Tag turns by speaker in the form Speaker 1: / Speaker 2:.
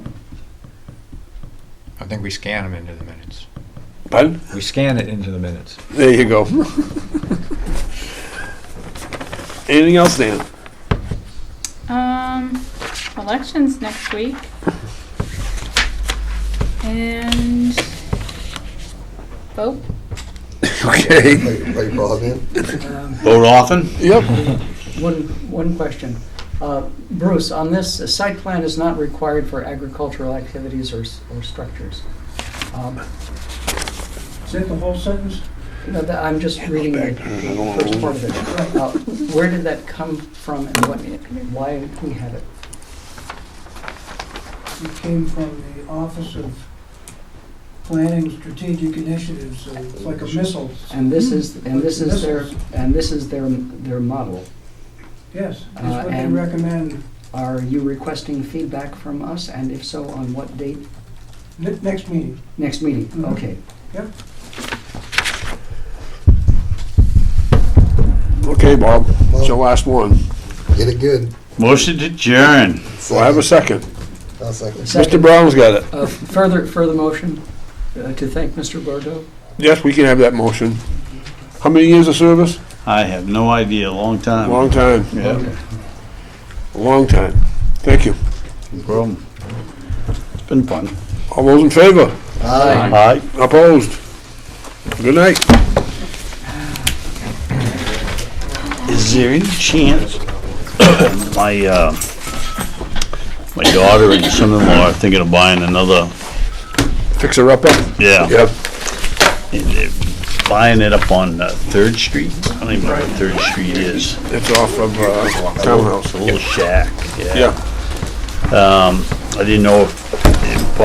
Speaker 1: think we scan them into the minutes.
Speaker 2: Pardon?
Speaker 1: We scan it into the minutes.
Speaker 2: There you go. Anything else, Dan?
Speaker 3: Um, elections next week. And vote.
Speaker 2: Okay.
Speaker 4: Like, like Bob in?
Speaker 5: Um,
Speaker 2: Vote often? Yep.
Speaker 5: One, one question. Uh, Bruce, on this, a site plan is not required for agricultural activities or, s- or structures. Um,
Speaker 6: Is that the whole sentence?
Speaker 5: no, that- I'm just reading the the first part of it. Uh, Where did that come from and what, why we have it?
Speaker 6: It came from the Office of Planning Strategic Initiatives, so it's like a missile.
Speaker 5: Uh, And this is, and this is their, and this is their, their model.
Speaker 6: Yes, that's
Speaker 5: Uh,
Speaker 6: what they
Speaker 5: and-
Speaker 6: recommend
Speaker 5: Are you requesting feedback from us, and if so, on what date?
Speaker 6: ne- next meeting.
Speaker 5: Next meeting,
Speaker 6: Mhm.
Speaker 5: okay.
Speaker 2: Okay, Bob, it's your last one.
Speaker 4: Get it good.
Speaker 7: Motion to adjourn.
Speaker 2: So I have a second.
Speaker 4: I'll second.
Speaker 5: Second.
Speaker 2: Mr. Brown's got it.
Speaker 5: Uh, Further, further motion uh, to thank Mr. Bordeaux?
Speaker 2: Yes, we can have that motion. How many years of service?
Speaker 7: I have no idea, long time.
Speaker 2: Long time,
Speaker 7: Yeah,
Speaker 2: a long time. Thank you.
Speaker 7: no problem. It's been fun.
Speaker 2: All those in favor?
Speaker 4: Aye.
Speaker 7: Aye.
Speaker 2: Opposed? Good night.
Speaker 7: Is there any chance my, uh, my daughter and son-in-law are thinking of buying another,
Speaker 2: Fix her up.
Speaker 7: yeah,
Speaker 2: Yep.
Speaker 7: and eh, they're buying it up on uh, Third Street? I don't even know what Third Street is.
Speaker 2: It's off of uh, townhouse.
Speaker 7: A little shack, yeah.
Speaker 2: Yeah.
Speaker 7: Um, I didn't know if